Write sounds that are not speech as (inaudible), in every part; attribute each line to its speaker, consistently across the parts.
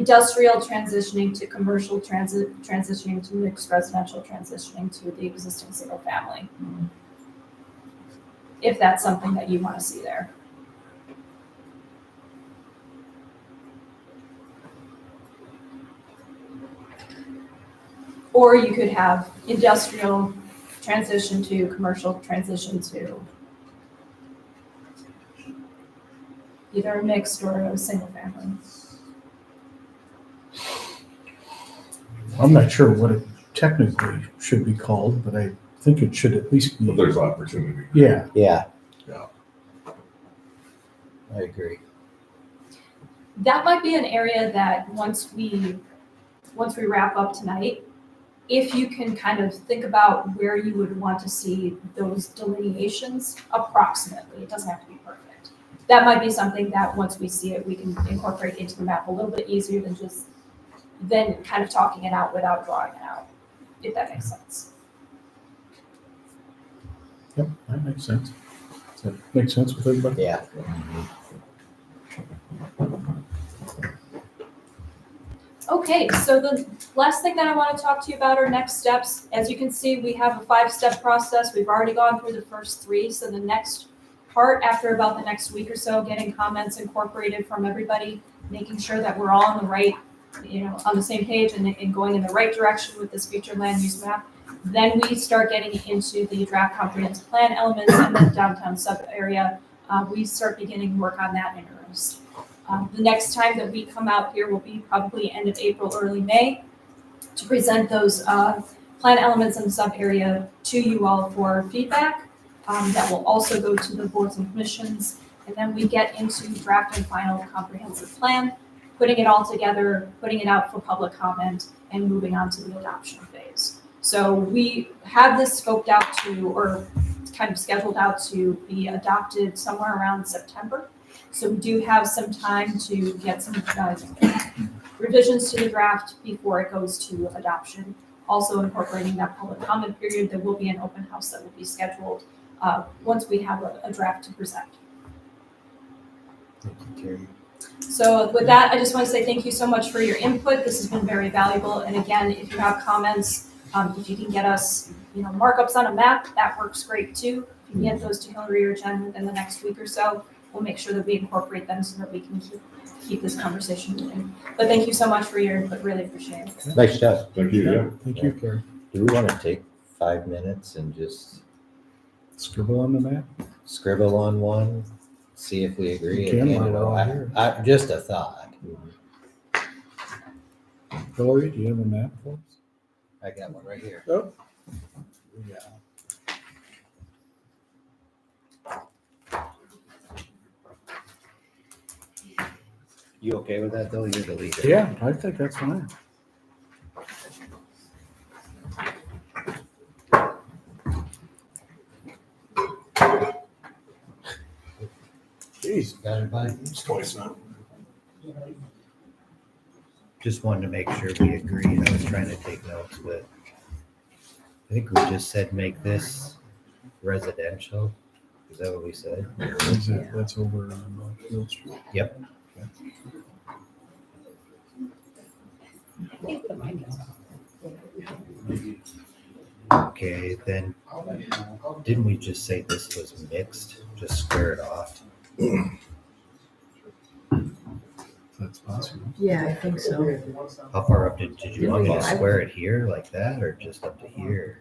Speaker 1: industrial transitioning to commercial transit, transitioning to mixed residential, transitioning to the existing single family. If that's something that you want to see there. Or you could have industrial transition to commercial transition to either a mixed or a single family.
Speaker 2: I'm not sure what it technically should be called, but I think it should at least
Speaker 3: But
Speaker 2: be,
Speaker 3: there's opportunity.
Speaker 2: yeah,
Speaker 4: Yeah.
Speaker 3: Yeah.
Speaker 4: I agree.
Speaker 1: that might be an area that once we once we wrap up tonight if you can kind of think about where you would want to see those delineations approximately it doesn't have to be perfect that might be something that once we see it we can incorporate into the map a little bit easier than just then kind of talking it out without drawing it out if that makes sense
Speaker 2: yep, that makes sense. Does that make sense with everybody?
Speaker 4: Yeah.
Speaker 1: Okay, so the last thing that I want to talk to you about are next steps. As you can see, we have a five-step process. We've already gone through the first three, so the next part, after about the next week or so, getting comments incorporated from everybody, making sure that we're all on the right, you know, on the same page and, and going in the right direction with this future land use map. Then we start getting into the draft comprehensive plan elements and the downtown sub area. Uh, we start beginning work on that in earnest. Um, The next time that we come out here will be probably end of April, early May, to present those uh, plan elements and sub-area to you all for feedback. Um, That will also go to the boards and commissions. And then we get into draft and final comprehensive plan, putting it all together, putting it out for public comment, and moving on to the adoption phase. So we have this scoped out to, or kind of scheduled out to be adopted somewhere around September. So we do have some time to get some uh, revisions to the draft before it goes to adoption. Also incorporating that public comment period, there will be an open house that will be scheduled uh, once we have a a draft to present.
Speaker 4: Thank you, Terry.
Speaker 1: So with that, I just want to say thank you so much for your input. This has been very valuable. And again, if you have comments, um, if you can get us, you know, markups on a map, that works great too. If you can get those to Hillary or Jen within the next week or so, we'll make sure that we incorporate them so that we can keep, keep this conversation moving. But thank you so much for your input. Really appreciate it.
Speaker 4: Nice job.
Speaker 3: Thank you, yeah.
Speaker 2: Thank you, Carrie.
Speaker 4: Do we want to take five minutes and just
Speaker 2: Scribble on the map.
Speaker 4: scribble on one, see if we agree?
Speaker 2: You
Speaker 4: and
Speaker 2: can
Speaker 4: hand it
Speaker 2: while we're
Speaker 4: off?
Speaker 2: here.
Speaker 4: I, just a thought.
Speaker 2: Hillary, do you have a map for us?
Speaker 4: I got one right here.
Speaker 2: Oh. Yeah.
Speaker 4: You okay with that though? You're the leader.
Speaker 2: Yeah, I think that's fine. Jeez,
Speaker 4: Got it, bud?
Speaker 3: It's twice now.
Speaker 4: Just wanted to make sure we agreed. I was trying to take notes with. I think we just said make this residential. Is that what we said?
Speaker 2: that's it, that's over on uh, Field Street.
Speaker 4: Okay, then, didn't we just say this was mixed? Just square it off?
Speaker 2: if That's possible.
Speaker 5: Yeah, I think so.
Speaker 4: How far up did, did you want me to square it here like that or just up to here?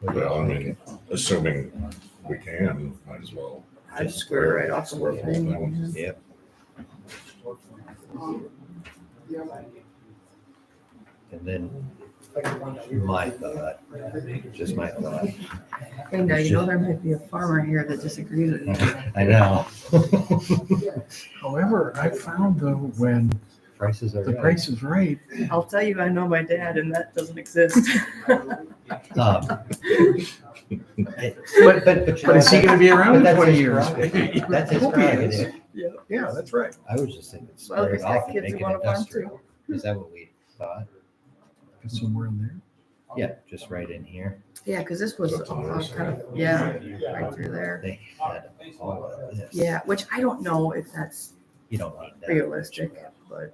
Speaker 4: What do you
Speaker 3: Well, I
Speaker 4: think?
Speaker 3: mean, assuming we can, might as well.
Speaker 4: Just square right off.
Speaker 3: Square the whole thing.
Speaker 4: Yep, and then my thought, just my thought.
Speaker 5: Hey, now, you know, there might be a farmer here that disagrees with you.
Speaker 4: I know.
Speaker 2: However, I found though, when
Speaker 4: Prices are
Speaker 2: the
Speaker 4: right.
Speaker 2: price is right,
Speaker 5: I'll tell you, I know my dad and that doesn't exist.
Speaker 2: (laughs)
Speaker 4: Um, But, but, but.
Speaker 2: but is he gonna be around
Speaker 4: But
Speaker 2: in
Speaker 4: that's
Speaker 2: twenty
Speaker 4: his
Speaker 2: years?
Speaker 4: prerogative. That's his
Speaker 2: Hope he is.
Speaker 4: prerogative.
Speaker 2: Yeah, that's right.
Speaker 4: I was just thinking
Speaker 5: Well,
Speaker 4: square
Speaker 5: there's
Speaker 4: it off
Speaker 5: got
Speaker 4: and
Speaker 5: kids
Speaker 4: make
Speaker 5: who
Speaker 4: it
Speaker 5: want to farm too.
Speaker 4: industrial. Is that what we thought?
Speaker 2: Somewhere in there.
Speaker 4: Yeah, just right in here.
Speaker 5: Yeah, because this was
Speaker 3: That's on
Speaker 5: all
Speaker 3: our
Speaker 5: kind of, yeah, right through there.
Speaker 4: They had all of this.
Speaker 5: Yeah, which I don't know if that's
Speaker 4: You don't need that.
Speaker 5: realistic, but